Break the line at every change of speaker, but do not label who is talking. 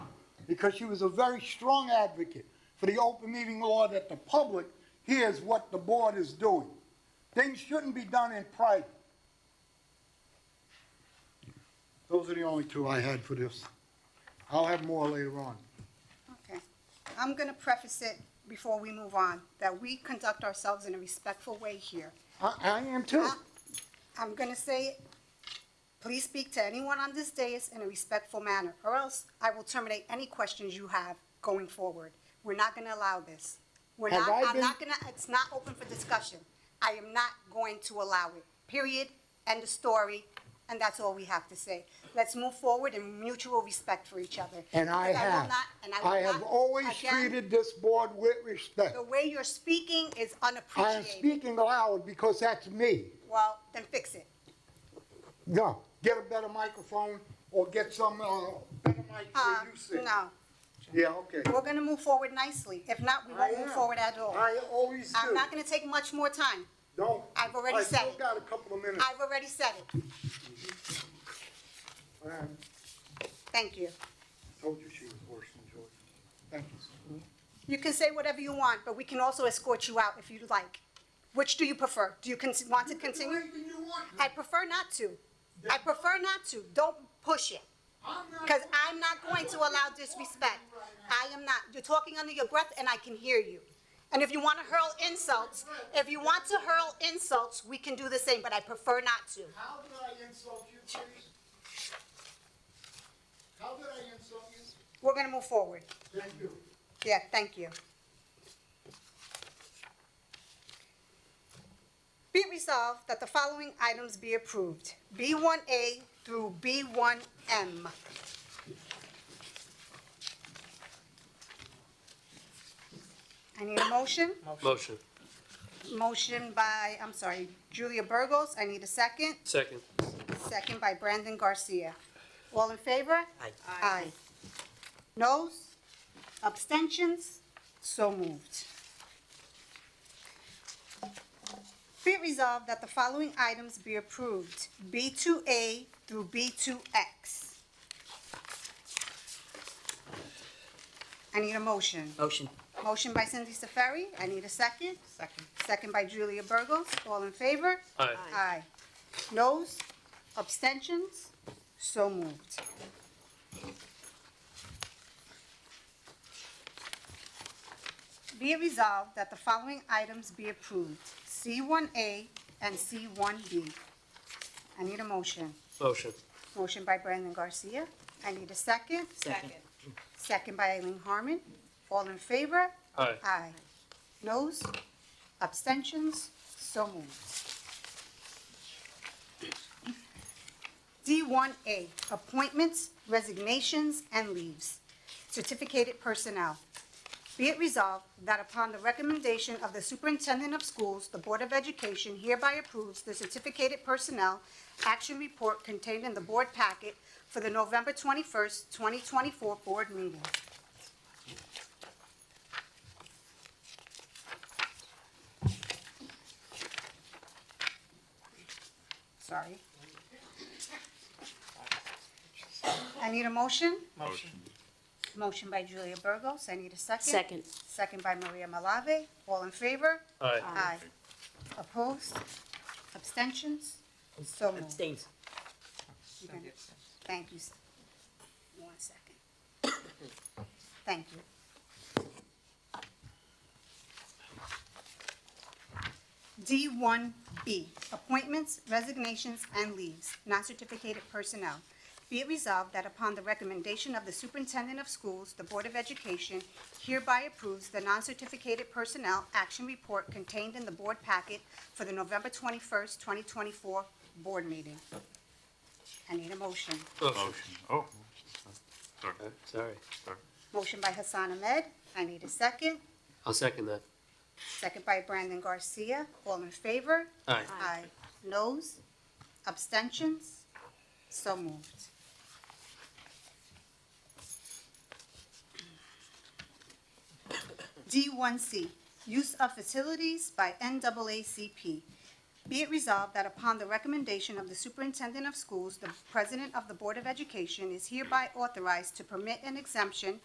because she was a very strong advocate for the open meeting law that the public hears what the board is doing. Things shouldn't be done in private. Those are the only two I had for this. I'll have more later on.
Okay. I'm going to preface it before we move on, that we conduct ourselves in a respectful way here.
I, I am too.
I- I'm going to say, it. please speak to anyone on this dais in a respectful manner, or else I will terminate any questions you have going forward. We're not going to allow this. We're
Have
not,
I
I'm
been-
not going to, it's not open for discussion. I am not going to allow it, period, end of story, and that's all we have to say. Let's move forward in mutual respect for each other.
And I
Because will
have.
not- and will
I have
not-
always
again,
treated this board with respect.
The way you're speaking is
I am
unappreciated.
speaking loud because that's me.
Well, then fix it.
No, get a better microphone or get some, uh, better mic
Uh,
where you sit.
no.
Yeah, okay.
We're gonna move forward nicely. If not, we
I
won't move
am.
forward at all.
I always do.
I'm not gonna take much more time.
Don't.
I've already
I
said
still
it.
got a couple of minutes.
I've already said it.
I
Thank you.
told you she was worse than George. Thank you.
You can say whatever you want, but we can also escort you out if you'd like. Which do you prefer? Do you con- want to continue?
Anything you want.
I prefer not to. I prefer not to. Don't push it.
I'm not-
Because I'm not going to allow disrespect. I am not. You're talking under your breath and I can hear you. And if you want to hurl insults, if you want to hurl insults, we can do the same, but I prefer not to.
How did I insult you, please? How did I insult you?
We're going to move forward.
Thank you.
Yeah, thank you. Be it resolved that the following items be approved, B1A through B1M. I need a motion?
Motion.
Motion by, I'm sorry, Julia Burgos, I need a second.
Second.
Second by Brandon Garcia. All in favor?
Aye.
Aye. Noes? Abstentions? So moved. Be it resolved that the following items be approved, B2A through B2X. I need a motion.
Motion.
Motion by Cindy Safari, I need a second.
Second.
Second by Julia Burgos, all in favor?
Aye.
Aye. Noes, abstentions, so moved. Be it resolved that the following items be approved, C1A and C1B. I need a motion.
Motion.
Motion by Brandon Garcia. I need a second.
Second.
Second by Eileen Harmon. All in favor?
Aye.
Aye. Noes? Abstentions? So moved. D1A, appointments, resignations, and leaves. Certificated personnel. Be it resolved that upon the recommendation of the Superintendent of Schools, the Board of Education hereby approves the certificated personnel action report contained in the board packet for the November 21st, 2024 board meeting. Sorry. I need a motion? Motion. Motion by Julia Burgos, I need a second.
Second.
Second by Maria Malave, all in favor?
Aye.
Aye. Opposed? Abstentions? So moved.
Abstains.
You're gonna- Thank you. s- One second. Thank you. D1B, appointments, resignations, and leaves, non-certificated personnel. Be it resolved that upon the recommendation of the superintendent of schools, the Board of Education hereby approves the non-certificated personnel action report contained in the board packet for the November 21st, 2024 board meeting. I need a motion.
Motion.
Motion, oh. Sorry.
Okay, Sorry.
Motion by Hassan Ahmed. I need a second.
I'll second that.
Second by Brandon Garcia. All in favor?
Aye.
Aye. Noes? Abstentions? So moved. D1C, use of facilities by NAACP. Be it resolved that upon the recommendation of the superintendent of schools, the president of the Board of Education is hereby authorized to permit an exemption